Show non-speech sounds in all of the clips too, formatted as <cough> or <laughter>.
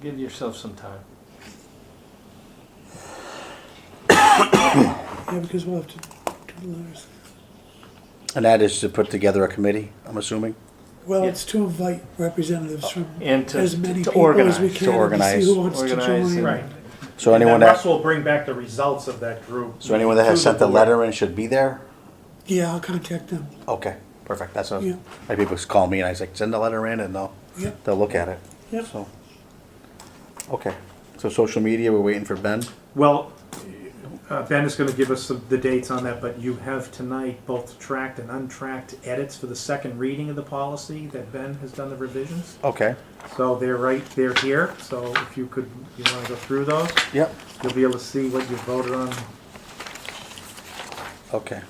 Give yourself some time. Yeah, because we'll have to do the letters. And that is to put together a committee, I'm assuming? Well, Yeah. it's to invite representatives from And to- as many to people organize, as we to can and to organize. see who wants to Organize join. and- Right. So And then anyone that, Russ will bring back the results of that group. so anyone that has to sent the board. letter in should be there? Yeah, I'll contact them. Okay, perfect, that's what, Yeah. like people just call me and I was like, send the letter in and they'll, Yeah. they'll look at it. Yeah. So, okay, so social media, we're waiting for Ben? Well, uh, Ben is going to give us the, the dates on that, but you have tonight both tracked and untracked edits for the second reading of the policy that Ben has done the revisions. Okay, So they're right, they're here. So if you could, you want to go through those, yep, you'll be able to see what you voted on. okay,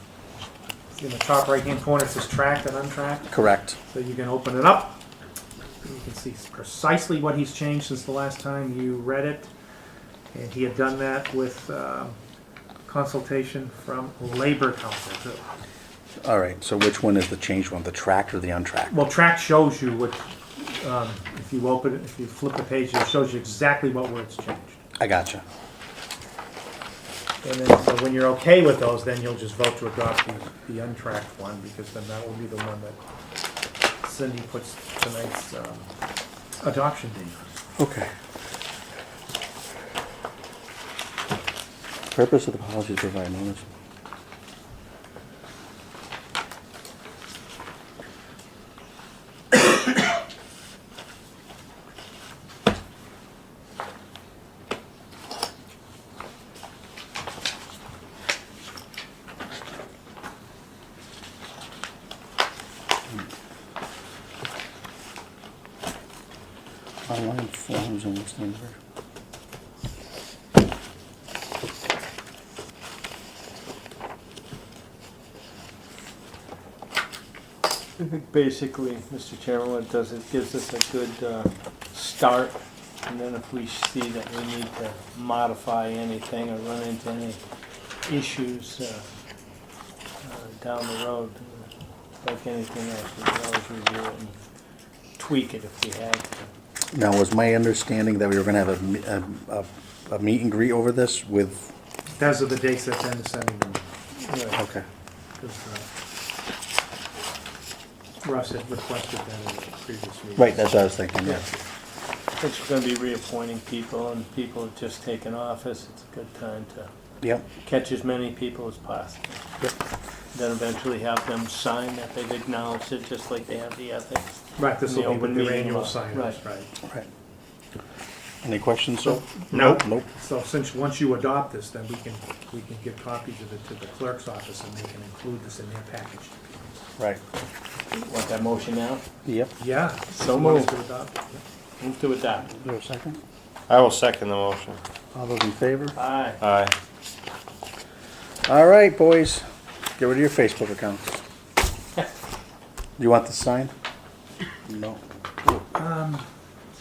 In the top right-hand corner, it says tracked and untracked. correct. So you can open it up. You can see precisely what he's changed since the last time you read it. And he had done that with um, consultation from Labor Council. too. All right, so which one is the changed one, the tracked or the untracked? Well, track shows you what, um, if you open it, if you flip the page, it shows you exactly what words changed. I gotcha. And then, so when you're okay with those, then you'll just vote to adopt the, the untracked one, because then that will be the one that Cindy puts tonight's um, adoption date on. Okay. Purpose of the policy is to provide notice. Online forms and listings are. I think basically, Mr. Chairman, what it does, it gives us a good uh, start, and then if we see that we need to modify anything or run into any issues uh, uh, down the road, uh, like anything else, we can always review it and tweak it if we have to. Now, was my understanding that we were gonna have a me- a, a, a meet and greet over this with, Those are the dates that Ben is sending them. Right. okay, Because uh, Russ had requested that in the previous meeting. right, that's what I was thinking, yeah. Yeah. It's going to be reappointing people, and people have just taken office, it's a good time to Yep, catch as many people as possible. Yep. Then eventually have them sign that they've acknowledged it, just like they have the ethics. Right, this The will be with open their meeting annual law. sign-offs, right. right. Any questions, sir? Nope. Nope, So since, once you adopt this, then we can, we can give copies of it to the clerk's office and they can include this in their package. right, Want that motion now? yep. Yeah. So You want us moved. to adopt? Move to adopt. Is there a second? I will second the motion. All those in favor? Aye. Aye. All right, boys, get rid of your Facebook accounts. You want this signed? No,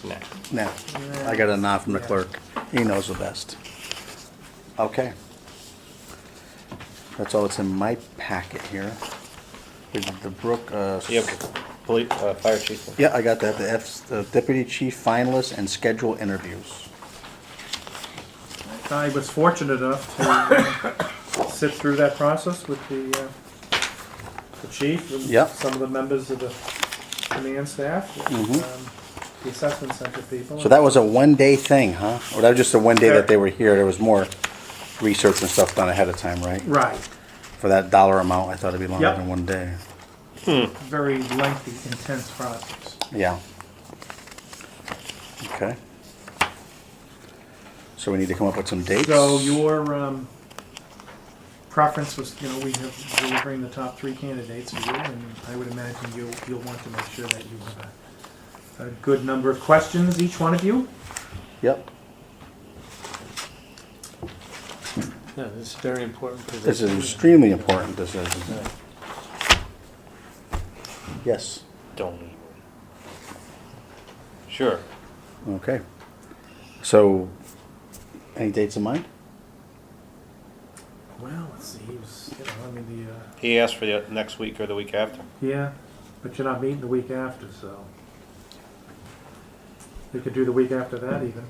Next. no, I got a nod from the clerk, he knows the best. Okay. That's all that's in my packet here. Is the Brook, uh. Yep. Police, uh, fire chief. Yeah, I got that, the F's, the deputy chief finalists and schedule interviews. I was fortunate enough to uh, <laughs> sit through that process with the, uh, the chief and Yep. some of the members of the command staff, and, Mhm. um, the assessment center people. So that was a one-day thing, huh? Or that was just the one day that they were here, there was more research and stuff done ahead of time, right? Right, For that dollar amount, I thought it'd be longer Yep. than one day. very lengthy, intense process. Yeah. Okay. So we need to come up with some dates? So your um, preference was, you know, we have delivering the top three candidates for you, and I would imagine you, you'll want to make sure that you have a, a good number of questions, each one of you. Yep, Yeah, this is a very important position. this is extremely important, this is. Yes, Don't even. Sure. okay. So, any dates in mind? Well, let's see, he was, you know, I mean, the, uh, He asked for the next week or the week after. yeah, but you're not meeting the week after, so. We could do the week after that even.